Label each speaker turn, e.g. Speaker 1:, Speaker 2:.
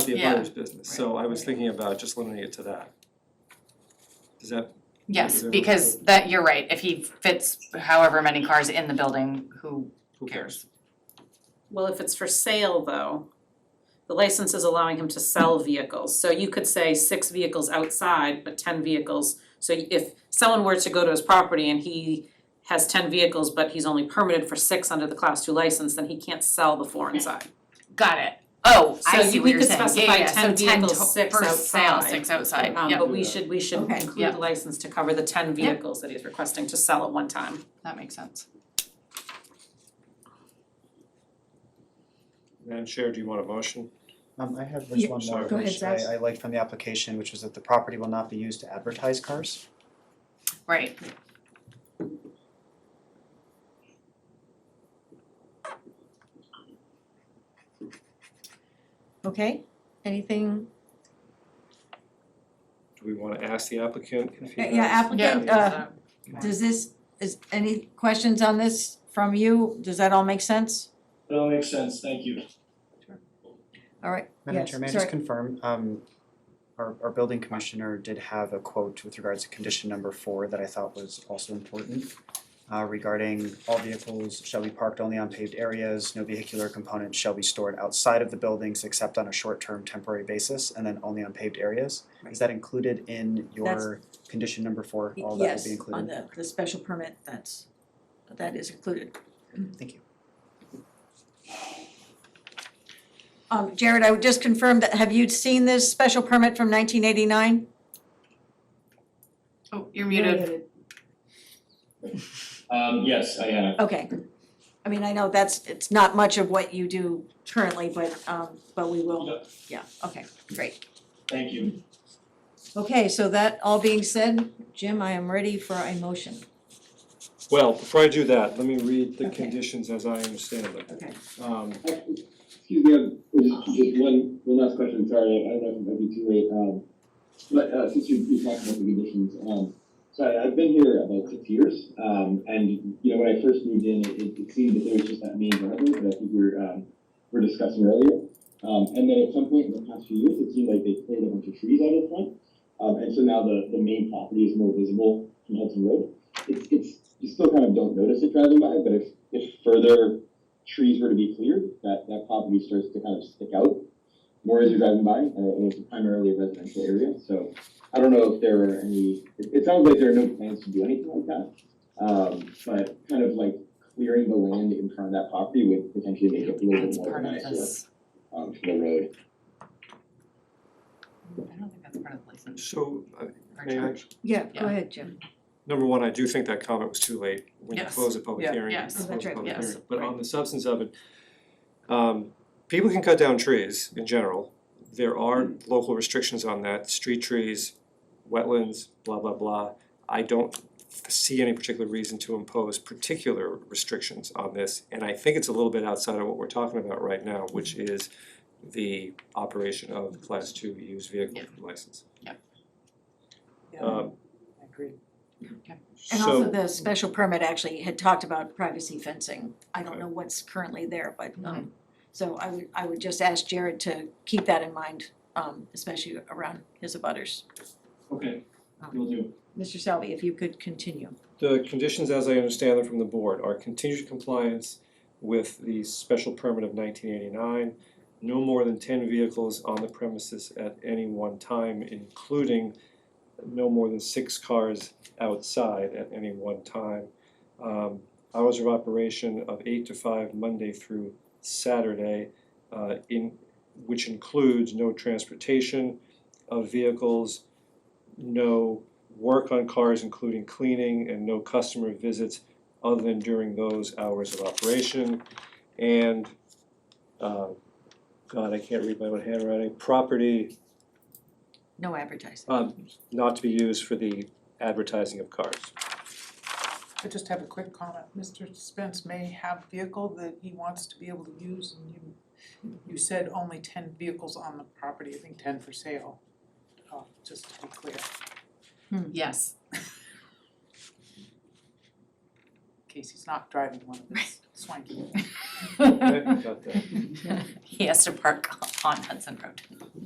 Speaker 1: the
Speaker 2: Yeah,
Speaker 1: abutters business, so I was thinking about just limiting it to that. Does that,
Speaker 2: Yes,
Speaker 1: Yeah.
Speaker 2: because that, you're right, if he fits however many cars in the building, who,
Speaker 1: who
Speaker 2: cares?
Speaker 1: cares?
Speaker 3: Well, if it's for sale though, the license is allowing him to sell vehicles, so you could say six vehicles outside, but ten vehicles. So if someone were to go to his property and he has ten vehicles, but he's only permitted for six under the class two license, then he can't sell the four inside.
Speaker 2: got it, oh, I
Speaker 3: So
Speaker 2: see
Speaker 3: you-
Speaker 2: what
Speaker 3: we
Speaker 2: you're
Speaker 3: could
Speaker 2: saying, yeah,
Speaker 3: specify
Speaker 2: yeah, so ten
Speaker 3: 10
Speaker 2: to,
Speaker 3: vehicles, six
Speaker 2: for sale,
Speaker 3: outside.
Speaker 2: six outside,
Speaker 3: Um,
Speaker 2: yep,
Speaker 3: but we should, we should
Speaker 4: Okay.
Speaker 3: include the license to cover the ten vehicles that he's requesting to sell at one time.
Speaker 2: that makes sense.
Speaker 1: Madam Chair, do you want a motion?
Speaker 5: Um, I have
Speaker 4: Yeah,
Speaker 5: just one more,
Speaker 1: sorry.
Speaker 4: Go ahead,
Speaker 5: which I,
Speaker 4: Zach.
Speaker 5: I liked from the application, which was that the property will not be used to advertise cars.
Speaker 2: Right,
Speaker 4: Okay, anything,
Speaker 1: Do we wanna ask the applicant if he
Speaker 4: Uh, yeah,
Speaker 1: has?
Speaker 4: applicant,
Speaker 1: Yeah.
Speaker 4: uh, does this, is any questions on this from you? Does that all make sense?
Speaker 6: That all makes sense, thank you.
Speaker 4: All right,
Speaker 5: Madam
Speaker 4: Yes,
Speaker 5: Chair, may I just
Speaker 4: sorry.
Speaker 5: confirm, um, our, our building commissioner did have a quote with regards to condition number four that I thought was also important. Uh, regarding all vehicles shall be parked only on paved areas, no vehicular components shall be stored outside of the buildings except on a short-term temporary basis and then only on paved areas. Is that included in your condition number four, all that will
Speaker 4: yes,
Speaker 5: be included?
Speaker 4: on the, the special permit, that's, that is included.
Speaker 5: Thank you.
Speaker 4: Um, Jared, I would just confirm that, have you seen this special permit from nineteen eighty-nine?
Speaker 2: oh, you're muted,
Speaker 6: Um, yes, I have.
Speaker 4: Okay. I mean, I know that's, it's not much of what you do currently, but, um, but we will,
Speaker 6: Yep.
Speaker 4: yeah, okay, great.
Speaker 6: Thank you.
Speaker 4: Okay, so that all being said, Jim, I am ready for a motion.
Speaker 1: Well, before I do that, let me read the
Speaker 4: Okay.
Speaker 1: conditions as I understand them.
Speaker 4: Okay.
Speaker 1: Um,
Speaker 7: Excuse me, um, just just one, one last question, sorry, I don't know if it might be too late, um, but, uh, since you, you talked about the conditions, um, so I, I've been here about six years, um, and, you know, when I first moved in, it, it seemed that there was just that main driveway that I think we we're, um, we we're discussing earlier. Um, and then at some point in the past few years, it seemed like they cleared a bunch of trees out of the front, um, and so now the, the main property is more visible from Hudson Road. It's, it's, you still kind of don't notice it driving by, but if, if further trees were to be cleared, that, that property starts to kind of stick out more as you're driving by, uh, and it's primarily a residential area, so I don't know if there are any, it, it sounds like there are no plans to do anything like that. Um, but kind of like clearing the land in front of that property would potentially make it a little bit
Speaker 2: that's
Speaker 7: more
Speaker 2: part of
Speaker 7: nicer,
Speaker 2: this,
Speaker 7: um, for the road.
Speaker 2: I don't think that's part of the license
Speaker 1: so, uh,
Speaker 2: or
Speaker 1: may I,
Speaker 2: charge,
Speaker 4: Yeah,
Speaker 2: Yeah.
Speaker 4: go ahead, Jim.
Speaker 1: number one, I do think that comment was too late when you
Speaker 2: Yes.
Speaker 1: close a public
Speaker 2: Yeah.
Speaker 1: hearing. you
Speaker 2: Yes.
Speaker 1: close a
Speaker 4: That's right,
Speaker 1: public
Speaker 2: yes,
Speaker 1: hearing. But on
Speaker 2: right.
Speaker 1: the substance of it, um, people can cut down trees in general. There are
Speaker 2: Mm.
Speaker 1: local restrictions on that, street trees, wetlands, blah, blah, blah. I don't see any particular reason to impose particular restrictions on this. And I think it's a little bit outside of what we're talking about right now, which
Speaker 2: Mm-hmm.
Speaker 1: is the operation of the class two used vehicle
Speaker 2: Yeah.
Speaker 1: license.
Speaker 2: Yep.
Speaker 1: Um,
Speaker 5: I agree.
Speaker 4: And also
Speaker 1: so-
Speaker 4: the special permit actually had talked about privacy fencing. I don't know what's currently there, but, um, so I would, I would just ask Jared to keep that in mind, um, especially around his abutters.
Speaker 6: Okay, will do.
Speaker 4: Mr. Salvi, if you could continue.
Speaker 1: The conditions, as I understand them from the board, are continued compliance with the special permit of nineteen eighty-nine, no more than ten vehicles on the premises at any one time, including no more than six cars outside at any one time. Um, hours of operation of eight to five, Monday through Saturday, uh, in, which includes no transportation of vehicles, no work on cars, including cleaning, and no customer visits other than during those hours of operation. And, uh, God, I can't read my own handwriting, property
Speaker 4: No advertising.
Speaker 1: um, not to be used for the advertising of cars.
Speaker 8: I just have a quick comment. Mr. Spence may have vehicle that he wants to be able to use and you you said only ten vehicles on the property, I think ten for sale. Uh just to be clear, in
Speaker 2: yes,
Speaker 8: case he's not driving one of his swanky.
Speaker 1: Okay, got that.
Speaker 2: He has to park on Hudson Road.